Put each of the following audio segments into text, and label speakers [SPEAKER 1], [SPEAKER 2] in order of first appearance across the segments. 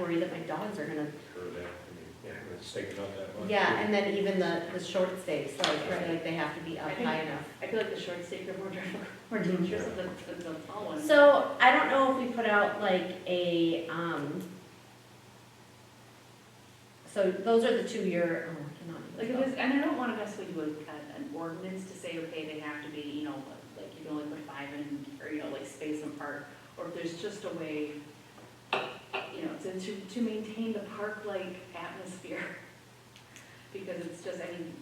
[SPEAKER 1] worry that my dogs are gonna,
[SPEAKER 2] Sure, that, I mean, yeah, it's taking up that much.
[SPEAKER 1] yeah, and then even the, the short stakes, like,
[SPEAKER 2] Right.
[SPEAKER 1] like they have to be up
[SPEAKER 3] I think-
[SPEAKER 1] high enough.
[SPEAKER 3] I feel like the short stake are more drama- more dangerous than the, than the tall ones.
[SPEAKER 4] So I don't know if we put out like a, um, so those are the two-year, oh, I cannot.
[SPEAKER 3] Like,
[SPEAKER 4] even
[SPEAKER 3] it
[SPEAKER 4] spell.
[SPEAKER 3] was, and I don't wanna necessarily do a- kind of an ordinance to say, okay, they have to be, you know, like, you can only put five in, or, you know, like, space them apart, or if there's just a way, you know, to, to, to maintain the park-like atmosphere, because it's just, I mean,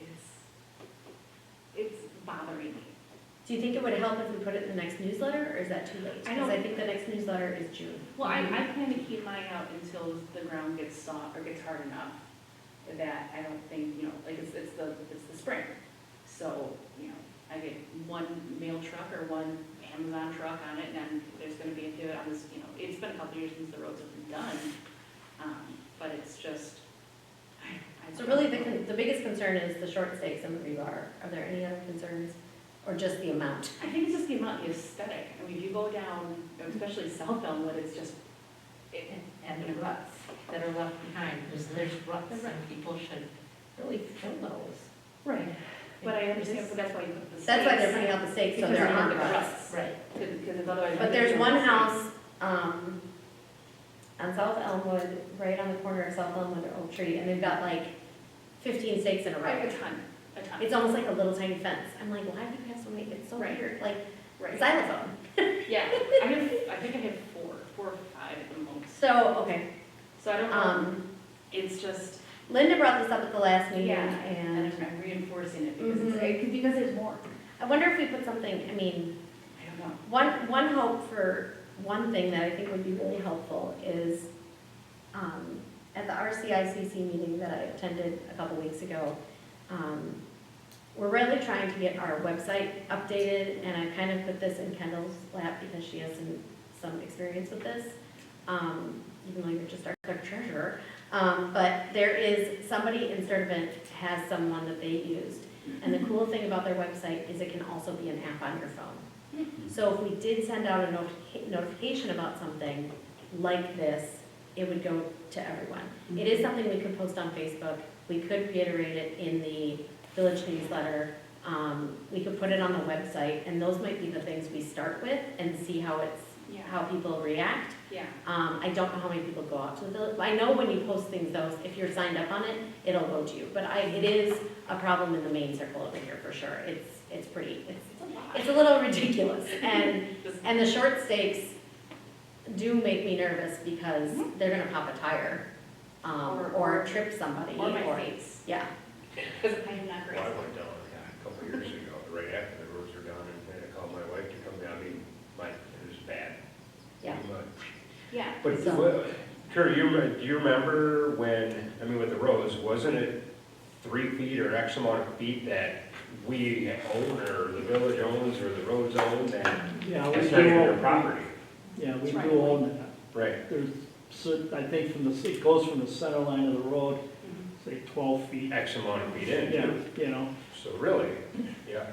[SPEAKER 3] it's, it's bothering me.
[SPEAKER 4] Do you think it would help if we put it in the next newsletter, or is that too late?
[SPEAKER 3] I
[SPEAKER 4] Because I
[SPEAKER 3] don't-
[SPEAKER 4] think the next newsletter is June.
[SPEAKER 3] Well, I, I plan to keep mine out until the ground gets soft, or gets hard enough, that I don't think, you know, like, it's, it's the, it's the spring. So, you know, I get one mail truck or one Amazon truck on it, and then there's gonna be a pivot on this, you know, it's been a couple years since the roads have been done, um, but it's just, I, I.
[SPEAKER 4] So really, the, con- the biggest concern is the short stakes and the rebar. Are there any other concerns, or just the amount?
[SPEAKER 3] I think it's just the amount, the aesthetic, I mean, if you go down, especially South Elmwood, it's just, it,
[SPEAKER 5] And- And the ruts that are left behind, because there's ruts and people should really fill those.
[SPEAKER 3] right, but I understand, but that's why you put the stakes.
[SPEAKER 4] That's why they're putting out the stakes, so
[SPEAKER 3] Because
[SPEAKER 4] there
[SPEAKER 3] they're
[SPEAKER 4] aren't
[SPEAKER 3] the
[SPEAKER 4] ruts.
[SPEAKER 3] ruts.
[SPEAKER 5] Right.
[SPEAKER 3] Because otherwise.
[SPEAKER 4] But there's one house, um, on South Elmwood, right on the corner of South Elmwood and Oak Tree, and they've got like fifteen stakes in a
[SPEAKER 3] Right,
[SPEAKER 4] row.
[SPEAKER 3] a ton, a ton.
[SPEAKER 4] It's almost like a little tiny fence. I'm like, why do you have so many? It's so
[SPEAKER 3] Right.
[SPEAKER 4] weird, like
[SPEAKER 3] Right.
[SPEAKER 4] xylophone.
[SPEAKER 3] Yeah, I have, I think I have four, four or five at the most.
[SPEAKER 4] So, okay,
[SPEAKER 3] So I don't know,
[SPEAKER 4] um,
[SPEAKER 3] it's just,
[SPEAKER 4] Linda brought this up at the last meeting,
[SPEAKER 3] yeah, and
[SPEAKER 4] and
[SPEAKER 3] I'm- I'm reinforcing it because,
[SPEAKER 4] Mhm.
[SPEAKER 3] it's- it- because there's more.
[SPEAKER 4] I wonder if we put something, I mean,
[SPEAKER 3] I don't know.
[SPEAKER 4] One, one hope for, one thing that I think would be really helpful is, um, at the RCICC meeting that I attended a couple weeks ago, um, we're really trying to get our website updated, and I kind of put this in Kendall's lap because she has some, some experience with this, um, even though you're just our clerk treasurer. Um, but there is, somebody in Sturtevant has someone that they used, and the cool thing about their website is it can also be an app on your phone. So if we did send out a notifi- notification about something like this, it would go to everyone. It is something we could post on Facebook, we could reiterate it in the village newsletter, um, we could put it on the website, and those might be the things we start with and see how it's,
[SPEAKER 3] Yeah,
[SPEAKER 4] how people react.
[SPEAKER 3] yeah.
[SPEAKER 4] Um, I don't know how many people go out to the village, I know when you post things though, if you're signed up on it, it'll go to you. But I, it is a problem in the main circle over here for sure, it's, it's pretty, it's
[SPEAKER 3] It's a lot.
[SPEAKER 4] it's a little ridiculous, and,
[SPEAKER 3] Just-
[SPEAKER 4] and the short stakes do make me nervous because they're gonna pop a tire, um,
[SPEAKER 3] Mm-hmm. Or-
[SPEAKER 4] or trip somebody,
[SPEAKER 3] Or my
[SPEAKER 4] or,
[SPEAKER 3] face,
[SPEAKER 4] yeah.
[SPEAKER 3] because I am not
[SPEAKER 2] Well, I
[SPEAKER 3] great.
[SPEAKER 2] went down a couple of years ago, right after the roads were done, and I had to call my wife to come down, I mean, my, it was bad.
[SPEAKER 4] Yeah.
[SPEAKER 3] Yeah,
[SPEAKER 2] But,
[SPEAKER 4] So-
[SPEAKER 2] well, Kurt, you, re- do you remember when, I mean, with the roads, wasn't it three feet or X amount of feet that we own, or the village owns, or the roads own, that
[SPEAKER 6] Yeah, we
[SPEAKER 2] it's
[SPEAKER 6] do
[SPEAKER 2] not even their
[SPEAKER 6] own,
[SPEAKER 2] property?
[SPEAKER 6] yeah, we
[SPEAKER 3] It's
[SPEAKER 6] do
[SPEAKER 3] right.
[SPEAKER 6] own
[SPEAKER 2] Right,
[SPEAKER 6] that. There's, cer- I think from the, it goes from the center line of the road, say twelve feet.
[SPEAKER 2] X amount of feet in,
[SPEAKER 6] Yeah,
[SPEAKER 2] too.
[SPEAKER 6] you know,
[SPEAKER 2] so really, yeah.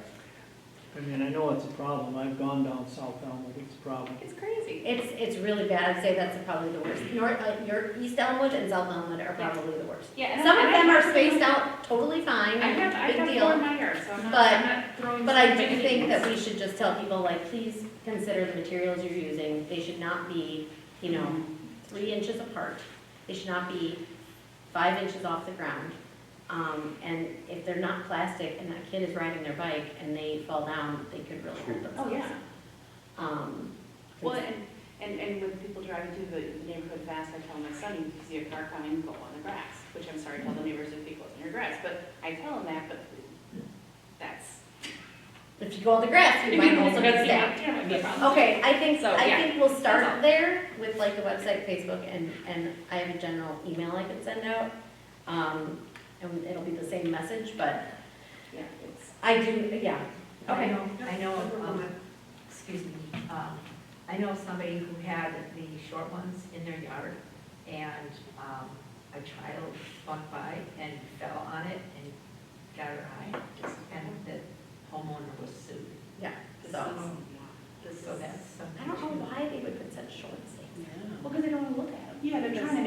[SPEAKER 6] I mean, I know it's a problem. I've gone down South Elmwood, it's a problem.
[SPEAKER 3] it's crazy.
[SPEAKER 4] It's, it's really bad, I'd say that's probably the worst, North, uh, your East Elmwood and South Elmwood are probably the worst.
[SPEAKER 3] Yeah. and
[SPEAKER 4] Some
[SPEAKER 3] I-
[SPEAKER 4] of
[SPEAKER 3] I
[SPEAKER 4] them are
[SPEAKER 3] have-
[SPEAKER 4] spaced out totally fine,
[SPEAKER 3] I have, I
[SPEAKER 4] big
[SPEAKER 3] have four in
[SPEAKER 4] deal,
[SPEAKER 3] my yard, so I'm not,
[SPEAKER 4] But-
[SPEAKER 3] I'm not throwing.
[SPEAKER 4] but I
[SPEAKER 3] stuff at
[SPEAKER 4] do think
[SPEAKER 3] anyone.
[SPEAKER 4] that we should just tell people, like, please consider the materials you're using, they should not be, you know, three inches apart. They should not be five inches off the ground. Um, and if they're not plastic and that kid is riding their bike and they fall down, they could really hurt
[SPEAKER 3] Oh,
[SPEAKER 4] themselves.
[SPEAKER 3] yeah.
[SPEAKER 4] Um,
[SPEAKER 3] Well, and, and, and when people drive through the the neighborhood fast, I tell my son, you can see a car coming, go on the grass, which I'm sorry, tell the neighbors if they go on your grass, but I tell them that, but that's.
[SPEAKER 4] if you go on the grass, you might also get
[SPEAKER 3] That's- yeah,
[SPEAKER 4] stabbed.
[SPEAKER 3] yeah, no problem.
[SPEAKER 4] Okay, I think,
[SPEAKER 3] So,
[SPEAKER 4] I
[SPEAKER 3] yeah,
[SPEAKER 4] think we'll
[SPEAKER 3] that's
[SPEAKER 4] start
[SPEAKER 3] all.
[SPEAKER 4] there with like the website, Facebook, and, and I have a general email I can send out. Um, and it'll be the same message, but
[SPEAKER 3] Yeah, it's,
[SPEAKER 4] I do, yeah,
[SPEAKER 5] I
[SPEAKER 4] okay.
[SPEAKER 5] know, I know, um, excuse me, um, I know somebody who had the short ones in their yard, and, um, a child walked by and fell on it and got her eye, and the homeowner was sued,
[SPEAKER 3] this is,
[SPEAKER 4] So,
[SPEAKER 3] yeah, this is.
[SPEAKER 5] so that's something.
[SPEAKER 4] I don't know
[SPEAKER 5] to-
[SPEAKER 4] why they would put such short statements.
[SPEAKER 3] Well, because they don't wanna look at them.
[SPEAKER 7] Yeah, they're